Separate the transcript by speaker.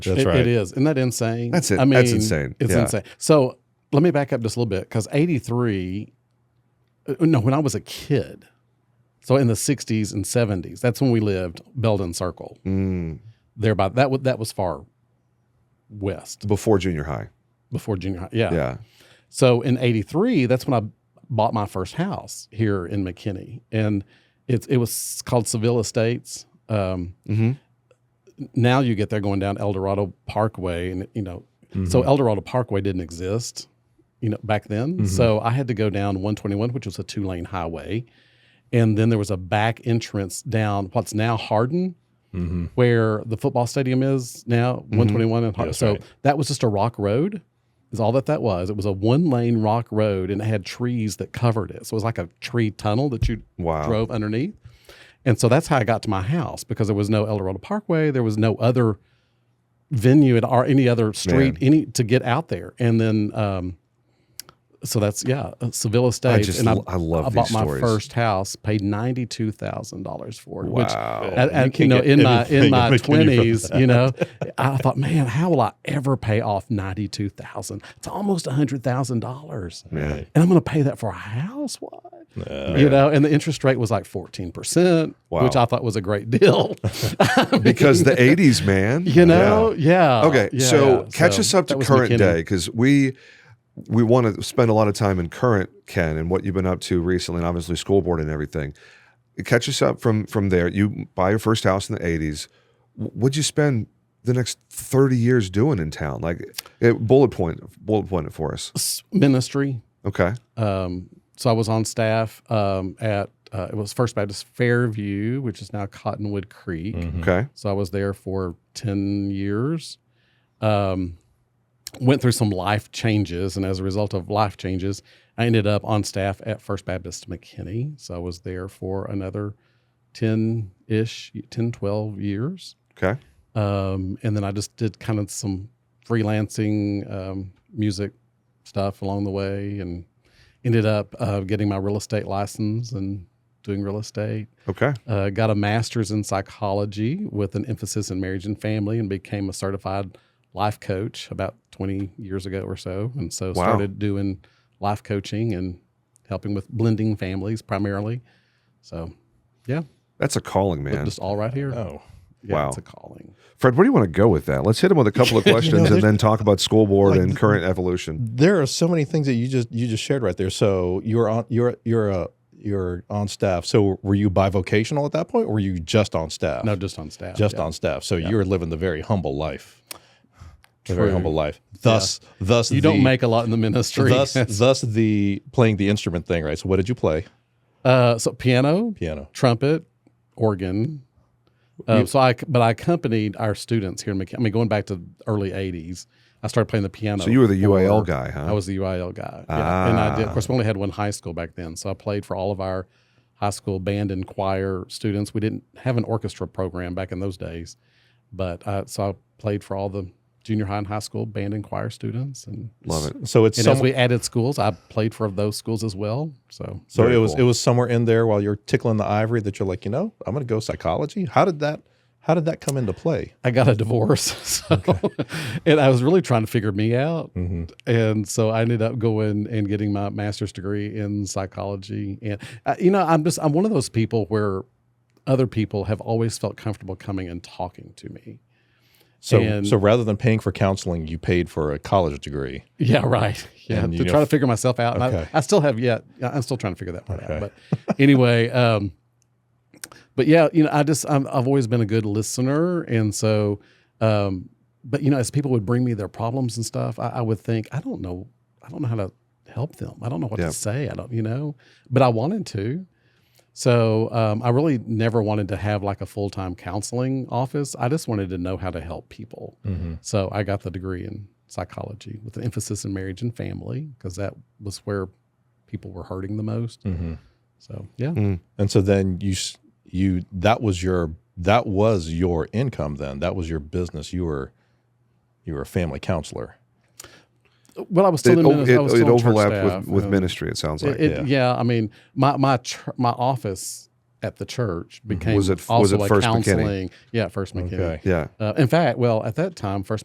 Speaker 1: That's
Speaker 2: It-
Speaker 1: right.
Speaker 2: It is. Isn't that insane?
Speaker 3: That's it.
Speaker 2: I mean,
Speaker 3: That's insane.
Speaker 2: It's
Speaker 3: Yeah.
Speaker 2: insane. So let me back up just a little bit because 83, uh, no, when I was a kid, so in the 60s and 70s, that's when we lived Belden Circle.
Speaker 3: Mm,
Speaker 2: There by that, wa- that was far west
Speaker 3: before junior high.
Speaker 2: before junior high.
Speaker 3: Yeah.
Speaker 2: So in 83, that's when I bought my first house here in McKinney. And it's it was called Seville Estates. Um,
Speaker 3: hmm
Speaker 2: now you get there going down El Dorado Parkway and you know,
Speaker 1: Mm-hmm.
Speaker 2: so El Dorado Parkway didn't exist, you know, back then. So I had to go down 121, which was a two lane highway. And then there was a back entrance down what's now Hardin,
Speaker 1: Mm-hmm.
Speaker 2: where the football stadium is now, 121 and Hardin.
Speaker 1: That's
Speaker 2: so
Speaker 1: right.
Speaker 2: that was just a rock road, is all that that was. It was a one lane rock road and it had trees that covered it. So it was like a tree tunnel that you
Speaker 3: Wow.
Speaker 2: drove underneath. And so that's how I got to my house because there was no El Dorado Parkway. There was no other venue at or any other street
Speaker 3: Man.
Speaker 2: any to get out there. And then, um, so that's yeah, uh, Seville Estates.
Speaker 3: just
Speaker 2: and
Speaker 3: lo- I love
Speaker 2: I bought
Speaker 3: these
Speaker 2: my
Speaker 3: stories.
Speaker 2: first house, paid ninety two thousand dollars for it. Which,
Speaker 3: Wow.
Speaker 2: and,
Speaker 1: You
Speaker 2: and, you
Speaker 1: can't
Speaker 2: know,
Speaker 1: get
Speaker 2: in my
Speaker 1: anything
Speaker 2: in my
Speaker 1: in McKinney for
Speaker 2: twenties, you know, I thought, man, how will I ever pay off ninety two thousand? It's almost hundred thousand dollars, and
Speaker 3: Man.
Speaker 2: I'm going to pay that for a house? What? you know, and the interest rate was like 14%,
Speaker 3: Oh, Wow.
Speaker 2: which I thought was a great deal. I mean,
Speaker 3: Because the 80s, man.
Speaker 2: you know, yeah.
Speaker 3: Yeah. Okay.
Speaker 2: yeah,
Speaker 3: so
Speaker 2: yeah.
Speaker 3: catch
Speaker 2: So
Speaker 3: us up to
Speaker 2: that was
Speaker 3: current
Speaker 2: McKinney.
Speaker 3: day because we we want to spend a lot of time in current Ken and what you've been up to recently, and obviously school board and everything. Catch us up from from there. You buy your first house in the 80s. Wh- What'd you spend the next 30 years doing in town? Like eh, bullet point, bullet point it for us.
Speaker 2: S- Ministry.
Speaker 3: Okay.
Speaker 2: Um, so I was on staff um, at, uh, it was First Baptist Fairview, which is now Cottonwood Creek.
Speaker 3: Okay.
Speaker 2: So I was there for 10 years. Um, went through some life changes. And as a result of life changes, I ended up on staff at First Baptist McKinney. So I was there for another 10 ish, 10, 12 years.
Speaker 3: Okay.
Speaker 2: Um, and then I just did kind of some freelancing um, music stuff along the way and ended up uh, getting my real estate license and doing real estate
Speaker 3: Okay.
Speaker 2: uh, got a master's in psychology with an emphasis in marriage and family and became a certified life coach about 20 years ago or so and so
Speaker 3: Wow.
Speaker 2: started doing life coaching and helping with blending families primarily so
Speaker 3: That's a calling,
Speaker 2: but
Speaker 3: man.
Speaker 2: just all right here
Speaker 1: Oh,
Speaker 2: yeah
Speaker 3: wow.
Speaker 2: it's a calling
Speaker 3: Fred, where do you want to go with that? Let's hit him with a couple of
Speaker 1: You know,
Speaker 3: questions and
Speaker 1: there's-
Speaker 3: then talk about school board
Speaker 1: like-
Speaker 3: and current evolution.
Speaker 1: there are so many things that you just you just shared right there. So you're on you're you're a you're on staff. So were you bivocational at that point, or were you just on staff?
Speaker 2: no just on staff
Speaker 1: just
Speaker 2: yeah.
Speaker 1: on staff. So you're living the very humble life. The very
Speaker 2: True.
Speaker 1: humble life. Thus, thus
Speaker 2: you
Speaker 1: the,
Speaker 2: don't make a lot in the ministry
Speaker 1: thus thus the playing the instrument thing, right? So what did you play?
Speaker 2: uh, so piano
Speaker 1: Piano.
Speaker 2: trumpet, organ. Uh, so I, but I accompanied our students here in McKinney. I mean, going back to early '80s, I started playing the piano.
Speaker 3: So you were the UAL
Speaker 2: for-
Speaker 3: guy, huh?
Speaker 2: I was the UIL guy. Yeah. And I did.
Speaker 3: Ah.
Speaker 2: Of course, we only had one high school back then, so I played for all of our high school band and choir students. We didn't have an orchestra program back in those days, but uh, so I played for all the junior high and high school band and choir students. And,
Speaker 3: Love it.
Speaker 1: So it's
Speaker 2: and
Speaker 1: some,
Speaker 2: as we added schools, I played for those schools as well. So
Speaker 1: so
Speaker 3: Very
Speaker 1: it was
Speaker 3: cool.
Speaker 1: it was somewhere in there while you're tickling the ivory that you're like, you know, I'm gonna go psychology. How did that how did that come into play?
Speaker 2: I got a divorce. So, and I was really trying to figure me out.
Speaker 1: Mm-hmm.
Speaker 2: And so I ended up going and getting my master's degree in psychology. And, uh, you know, I'm just, I'm one of those people where other people have always felt comfortable coming and talking to me.
Speaker 1: So
Speaker 2: And-
Speaker 1: so rather than paying for counseling, you paid for a college degree.
Speaker 2: Yeah, right. Yeah,
Speaker 1: And,
Speaker 2: to
Speaker 1: you know,
Speaker 2: try to figure myself out. And
Speaker 1: okay.
Speaker 2: I, I still have yet. I'm still trying to figure that part
Speaker 1: Okay.
Speaker 2: out. But anyway, um, but yeah, you know, I just I'm, I've always been a good listener, and so, um, but you know, as people would bring me their problems and stuff, I, I would think I don't know, I don't know how to help them. I don't know what
Speaker 3: Yeah.
Speaker 2: to say. I don't, you know, but I wanted to. So um, I really never wanted to have like a full time counseling office. I just wanted to know how to help people.
Speaker 1: Mm-hmm.
Speaker 2: So I got the degree in psychology with an emphasis in marriage and family because that was where people were hurting the most.
Speaker 1: Mm-hmm.
Speaker 2: So yeah,
Speaker 1: And so then you s- you that was your that was your income then. That was your business. You were you were a family counselor.
Speaker 2: well, I was still
Speaker 3: It,
Speaker 2: in
Speaker 3: o-
Speaker 2: minis-
Speaker 3: it,
Speaker 2: I was
Speaker 3: it
Speaker 2: still on church
Speaker 3: overlapped
Speaker 2: staff, uh, um,
Speaker 3: with, with
Speaker 2: and
Speaker 3: ministry, it sounds like.
Speaker 2: It, it- yeah. I mean, my my tr- my office at the church
Speaker 3: Mm-hmm.
Speaker 2: became
Speaker 3: Was it- was
Speaker 2: also
Speaker 3: it
Speaker 2: a
Speaker 3: First McKinney?
Speaker 2: counseling. Yeah, First McKinney.
Speaker 1: Okay.
Speaker 3: Yeah.
Speaker 2: Uh, in fact, well, at that time, First